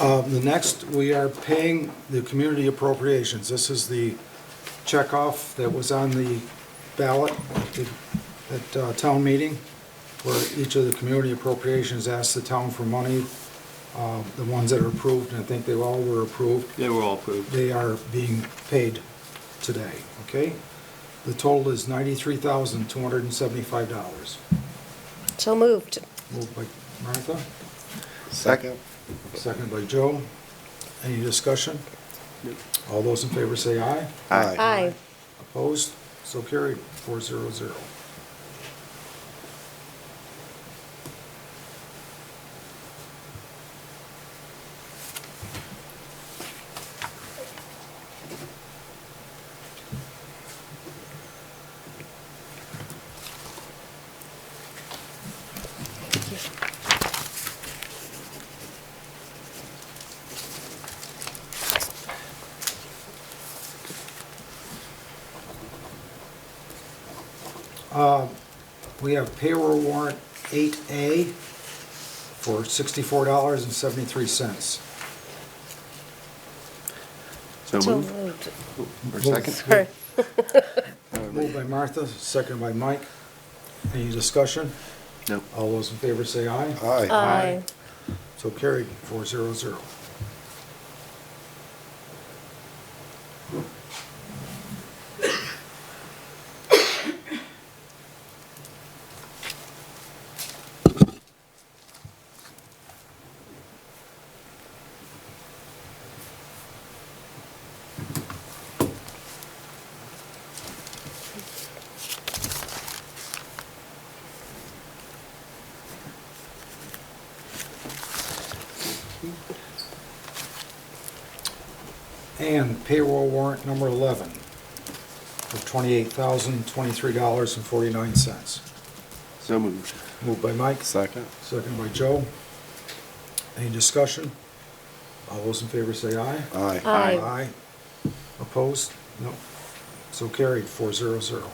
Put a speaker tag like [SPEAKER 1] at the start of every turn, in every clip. [SPEAKER 1] Um, The next, we are paying the community appropriations. This is the checkoff that was on the ballot at the- at uh, town meeting, where each of the community appropriations asked the town for money, uh, the ones that are approved, and I think they all were approved.
[SPEAKER 2] They were all approved.
[SPEAKER 1] They are being paid today, okay? The total is $93,275.
[SPEAKER 3] So moved.
[SPEAKER 1] Moved by Martha,
[SPEAKER 4] Second.
[SPEAKER 1] seconded by Joe. Any discussion? All those in favor say aye.
[SPEAKER 3] Aye.
[SPEAKER 1] Opposed? So carried, four zero zero. We have payroll warrant eight A for sixty-four dollars and seventy-three cents.
[SPEAKER 4] So
[SPEAKER 3] So
[SPEAKER 4] moved.
[SPEAKER 3] moved.
[SPEAKER 4] Or second?
[SPEAKER 3] Sorry.
[SPEAKER 1] Moved by Martha, seconded by Mike. Any discussion?
[SPEAKER 4] No.
[SPEAKER 1] All those in favor say aye.
[SPEAKER 4] Aye.
[SPEAKER 3] Aye.
[SPEAKER 1] So carried, four zero zero. And payroll warrant number eleven for twenty-eight thousand, twenty-three dollars and forty-nine cents.
[SPEAKER 4] So moved.
[SPEAKER 1] Moved by Mike,
[SPEAKER 4] Second.
[SPEAKER 1] seconded by Joe. Any discussion? All those in favor say aye.
[SPEAKER 4] Aye.
[SPEAKER 3] Aye.
[SPEAKER 1] Aye. Opposed? No. So carried, four zero zero.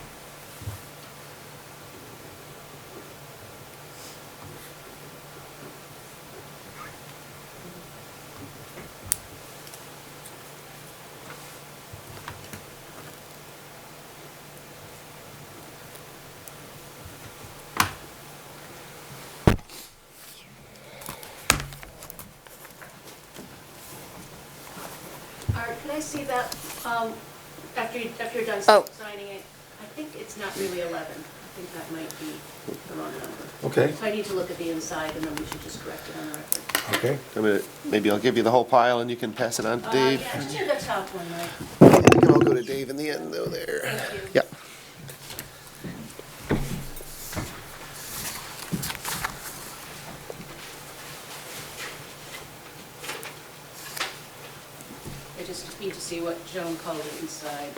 [SPEAKER 5] Art, can I see that, um, after you, after you're done
[SPEAKER 3] Oh.
[SPEAKER 5] signing it? I think it's not really 11. I think that might be the wrong number.
[SPEAKER 1] Okay,
[SPEAKER 5] So I need to look at the inside, and then we should just correct it on the record.
[SPEAKER 1] okay.
[SPEAKER 4] I mean, Maybe I'll give you the whole pile and you can pass it on to
[SPEAKER 5] Uh,
[SPEAKER 4] Dave.
[SPEAKER 5] Yeah, just do the top one, Mike.
[SPEAKER 4] We can all go to Dave in the end though there.
[SPEAKER 5] Thank you.
[SPEAKER 4] Yeah.
[SPEAKER 5] I just need to see what Joan called it inside.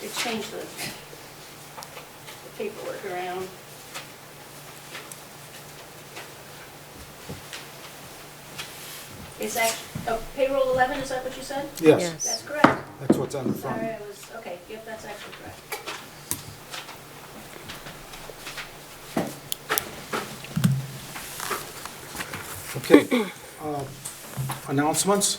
[SPEAKER 5] They changed the the paperwork around. It's act, oh, payroll 11, is that what you said?
[SPEAKER 1] Yes,
[SPEAKER 3] Yes.
[SPEAKER 5] That's correct.
[SPEAKER 1] that's what's on the front.
[SPEAKER 5] Sorry, I was, okay, yep, that's actually correct.
[SPEAKER 1] Okay, um, announcements.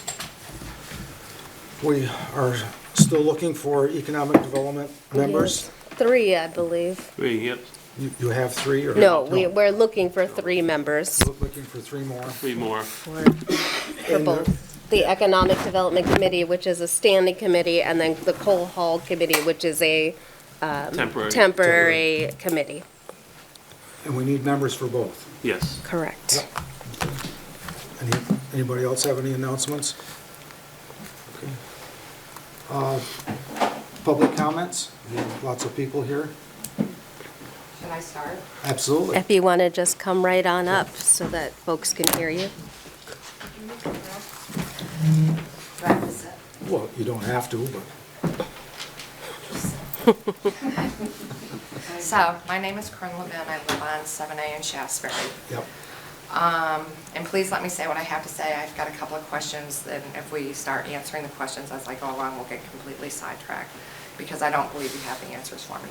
[SPEAKER 1] We are still looking for economic development members.
[SPEAKER 3] Yes. Three, I believe.
[SPEAKER 2] Three, yep,
[SPEAKER 1] You you have three or?
[SPEAKER 3] No, we, we're looking for three members
[SPEAKER 1] Look- Looking for three more.
[SPEAKER 2] three more.
[SPEAKER 3] for, for both the Economic Development Committee, which is a standing committee, and then the Coal Hall Committee, which is a
[SPEAKER 2] Temporary.
[SPEAKER 3] temporary committee.
[SPEAKER 1] And we need members for both.
[SPEAKER 2] Yes.
[SPEAKER 3] Correct.
[SPEAKER 1] Any- Anybody else have any announcements? Okay. Uh, Public comments? We have Lots of people here.
[SPEAKER 6] Should I start?
[SPEAKER 1] Absolutely.
[SPEAKER 3] If you want to just come right on up so that folks can hear you.
[SPEAKER 6] Practice it.
[SPEAKER 1] Well, you don't have to, but
[SPEAKER 6] So, my name is Corinne Levin, I live on 7A in Shaftsbury.
[SPEAKER 1] yep.
[SPEAKER 6] And please let me say what I have to say, I've got a couple of questions, and if we start answering the questions as I go along, we'll get completely sidetracked, because I don't believe you have the answers for me